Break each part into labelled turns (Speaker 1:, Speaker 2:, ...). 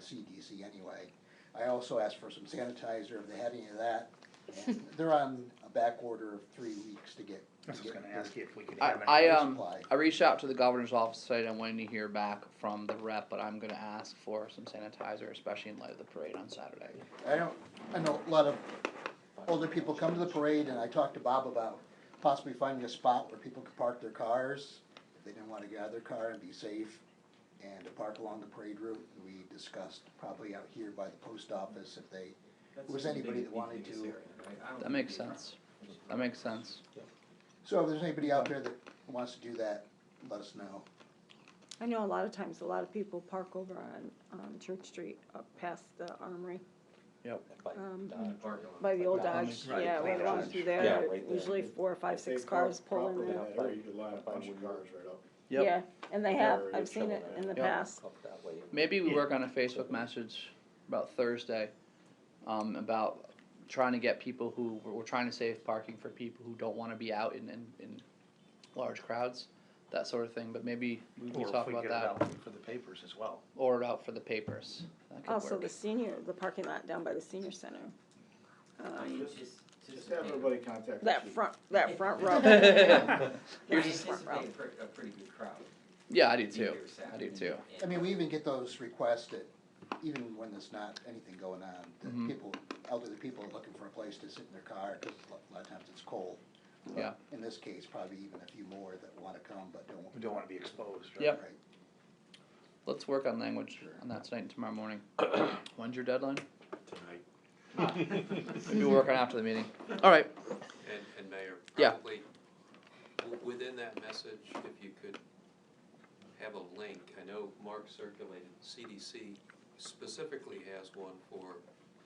Speaker 1: CDC anyway. I also asked for some sanitizer, if they had any of that. And They're on a back order of three weeks to get.
Speaker 2: I was
Speaker 1: to
Speaker 2: just gonna
Speaker 1: get
Speaker 2: ask you if we could
Speaker 3: I,
Speaker 2: have any.
Speaker 3: I
Speaker 1: Air
Speaker 3: um
Speaker 1: supply.
Speaker 3: I reached out to the governor's office today. I'm waiting to hear back from the rep, but I'm gonna ask for some sanitizer, especially in light of the parade on Saturday.
Speaker 1: I don't, I know a lot of older people come to the parade, and I talked to Bob about possibly finding a spot where people could park their cars. They didn't wanna get out of their car and be safe, and to park along the parade route, we discussed probably out here by the post office if they,
Speaker 4: That's
Speaker 1: was
Speaker 4: the
Speaker 1: anybody
Speaker 4: big-
Speaker 1: that wanted
Speaker 4: biggest
Speaker 1: to-
Speaker 4: area, right? I don't
Speaker 3: That makes
Speaker 4: think-
Speaker 3: sense. That makes sense.
Speaker 1: so if there's anybody out there that wants to do that, let us know.
Speaker 5: I know a lot of times, a lot of people park over on, um, Church Street, up past the armory,
Speaker 3: Yep.
Speaker 5: um,
Speaker 4: Uh, parking lot.
Speaker 5: by the old
Speaker 3: Right.
Speaker 5: Dodge,
Speaker 3: Right.
Speaker 5: yeah, when it
Speaker 6: Right.
Speaker 5: goes through
Speaker 6: Yeah,
Speaker 5: there,
Speaker 6: right there.
Speaker 5: usually four or five,
Speaker 7: If they
Speaker 5: six
Speaker 7: park
Speaker 5: cars pulling
Speaker 7: properly
Speaker 5: there.
Speaker 7: out there, you line a bunch of cars right up.
Speaker 5: Yeah, and they have,
Speaker 7: Or you
Speaker 5: I've seen
Speaker 7: shovel
Speaker 5: it
Speaker 7: it.
Speaker 5: in the
Speaker 3: Yep.
Speaker 5: past,
Speaker 6: Up that way.
Speaker 3: Maybe we
Speaker 2: Yeah.
Speaker 3: work on a Facebook message about Thursday, um, about trying to get people who, we're, we're trying to save parking for people who don't wanna be out in, in, in large crowds, that sort of thing, but maybe we
Speaker 2: Or
Speaker 3: can
Speaker 2: if
Speaker 3: talk
Speaker 2: we
Speaker 3: about
Speaker 2: get it
Speaker 3: that.
Speaker 2: out For the papers as well.
Speaker 3: Or it out for the papers, that could
Speaker 5: also
Speaker 3: work.
Speaker 5: the senior, the parking lot down by the senior center. Um,
Speaker 4: Just- just-
Speaker 7: Just
Speaker 4: just
Speaker 7: have
Speaker 4: maybe.
Speaker 7: everybody contact the
Speaker 5: that
Speaker 7: chief.
Speaker 5: front, that front row.
Speaker 4: I
Speaker 5: Here's this front row.
Speaker 4: anticipate a pre- a pretty good crowd.
Speaker 3: Yeah, I do
Speaker 4: either
Speaker 3: too, I do
Speaker 4: Saturday
Speaker 3: too.
Speaker 4: and-
Speaker 1: I mean, we even get those requests that, even when there's not anything going on,
Speaker 3: Mhm.
Speaker 1: that people, elderly people are looking for a place to sit in their car, cause a lot- a lot of times it's cold.
Speaker 3: Yeah.
Speaker 1: In this case, probably even a few more that wanna come, but don't.
Speaker 2: We don't wanna be exposed, right?
Speaker 3: Yep.
Speaker 1: Right.
Speaker 3: Let's work on language on that tonight and tomorrow morning. When's your deadline?
Speaker 8: tonight.
Speaker 3: Maybe we'll work on after the meeting. Alright,
Speaker 8: And, and Mayor,
Speaker 3: Yeah.
Speaker 8: probably, w- within that message, if you could have a link, I know Mark circulated, CDC specifically has one for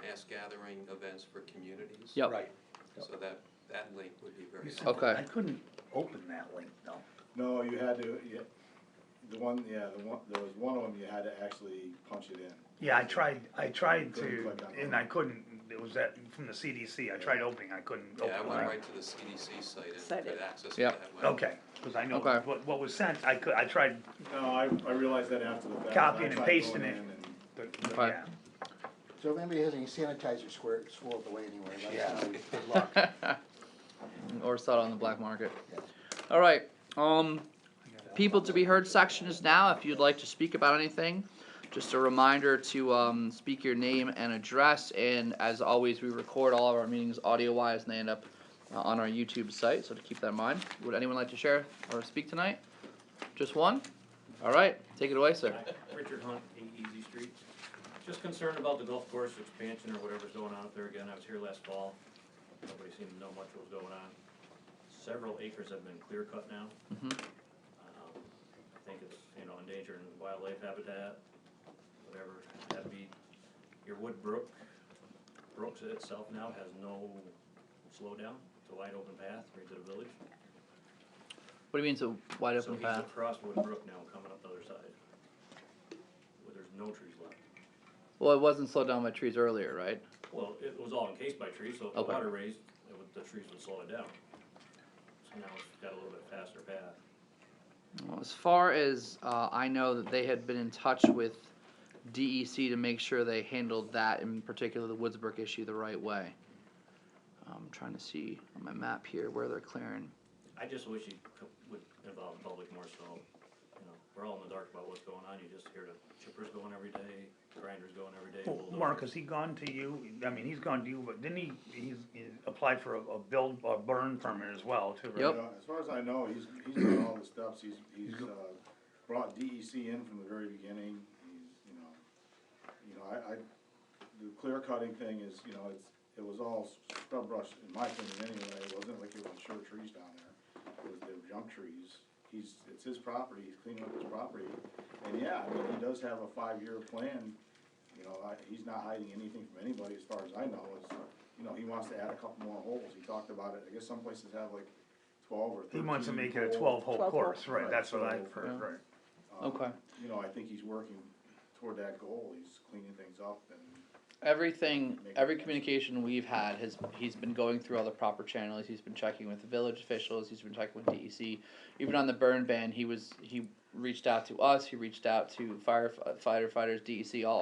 Speaker 8: mass gathering events for communities.
Speaker 3: Yep.
Speaker 2: Right.
Speaker 8: So that, that link would be very
Speaker 2: You said-
Speaker 8: helpful.
Speaker 3: Okay.
Speaker 2: I couldn't open that link though.
Speaker 7: No, you had to, you, the one, yeah, the one, there was one of them you had to actually punch it in.
Speaker 2: Yeah, I tried, I tried
Speaker 7: Couldn't
Speaker 2: to,
Speaker 7: click on it.
Speaker 2: and I couldn't, it was that, from the CDC, I tried opening, I couldn't
Speaker 8: Yeah, I
Speaker 2: open
Speaker 8: went
Speaker 2: it.
Speaker 8: right to the CDC site
Speaker 5: Site
Speaker 8: and
Speaker 5: it.
Speaker 8: could access to
Speaker 3: Yep.
Speaker 8: that web.
Speaker 2: Okay, cause I know
Speaker 3: Okay.
Speaker 2: what, what was sent, I could, I tried,
Speaker 7: No, I, I realized that after the fact.
Speaker 2: Copying
Speaker 7: I
Speaker 2: and
Speaker 7: tried
Speaker 2: pasting
Speaker 7: going
Speaker 2: it.
Speaker 7: in and-
Speaker 2: the- the-
Speaker 3: Okay.
Speaker 2: yeah.
Speaker 1: So if anybody has any sanitizer square, swirled away anywhere, let us know. Good luck.
Speaker 3: or sell it on the black market. All right. Um, people to be heard section is now. If you'd like to speak about anything, just a reminder to um, speak your name and address. And as always, we record all of our meetings audio wise, and they end up uh, on our YouTube site. So to keep that in mind. Would anyone like to share or speak tonight? Just one. All right. Take it away, sir.
Speaker 9: Richard Hunt, Eight Easy Street. Just concerned about the golf course expansion or whatever's going on up there again. I was here last fall. Nobody seemed to know much what was going on. Several acres have been clear cut now.
Speaker 3: Mhm.
Speaker 9: Um, I think it's, you know, endangering wildlife habitat, whatever. That'd be, your wood brook, brooks itself now has no slowdown. It's a wide open path right to the village.
Speaker 3: What do you mean? So wide
Speaker 9: So
Speaker 3: open
Speaker 9: he's
Speaker 3: path.
Speaker 9: across Wood Brook now, coming up the other side. Where there's no trees left.
Speaker 3: Well, it wasn't slowed down by trees earlier, right?
Speaker 9: Well, it was all encased by trees, so if the
Speaker 3: Okay.
Speaker 9: water raised, it would, the trees would slow it down. So now it's got a little bit faster path.
Speaker 3: Well, as far as uh, I know, that they had been in touch with DEC to make sure they handled that, in particular the Woodsburg issue, the right way. I'm trying to see on my map here where they're clearing.
Speaker 9: I just wish you co- would involve the public more so, you know, we're all in the dark about what's going on, you just hear the chippers going every day, grinders going every day.
Speaker 2: Well,
Speaker 9: bulldozers.
Speaker 2: Mark, has he gone to you, I mean, he's gone to you, but didn't he, he's, he applied for a, a build, a burn permit as well too, right?
Speaker 3: Yep.
Speaker 7: You know, As far as I know, he's, he's done all the steps, he's, he's, uh, brought DEC in from the very beginning, he's, you know, you know, I, I, the clear cutting thing is, you know, it's, it was all scrub brush, in my opinion anyway, it wasn't like it was sure trees down there, it was, they were junk trees. He's, it's his property, he's cleaning up his property, and yeah, I mean, he does have a five-year plan, you know, I, he's not hiding anything from anybody as far as I know, it's, you know, he wants to add a couple more holes, he talked about it, I guess some places have like twelve or
Speaker 2: He
Speaker 7: thirteen.
Speaker 2: wants to make it a
Speaker 7: hole.
Speaker 2: twelve hole
Speaker 5: 12 hole.
Speaker 2: course, right,
Speaker 7: Right,
Speaker 2: that's what
Speaker 7: so-
Speaker 2: I've heard,
Speaker 3: Yeah.
Speaker 2: right.
Speaker 7: Um,
Speaker 3: Okay.
Speaker 7: You know, I think he's working toward that goal, he's cleaning things up and
Speaker 3: Everything, every communication we've had has, he's been going through all the proper channels, he's been checking with the village officials, he's been checking with DEC. Even on the burn ban, he was, he reached out to us, he reached out to firefighter, uh, firefighters, DEC, all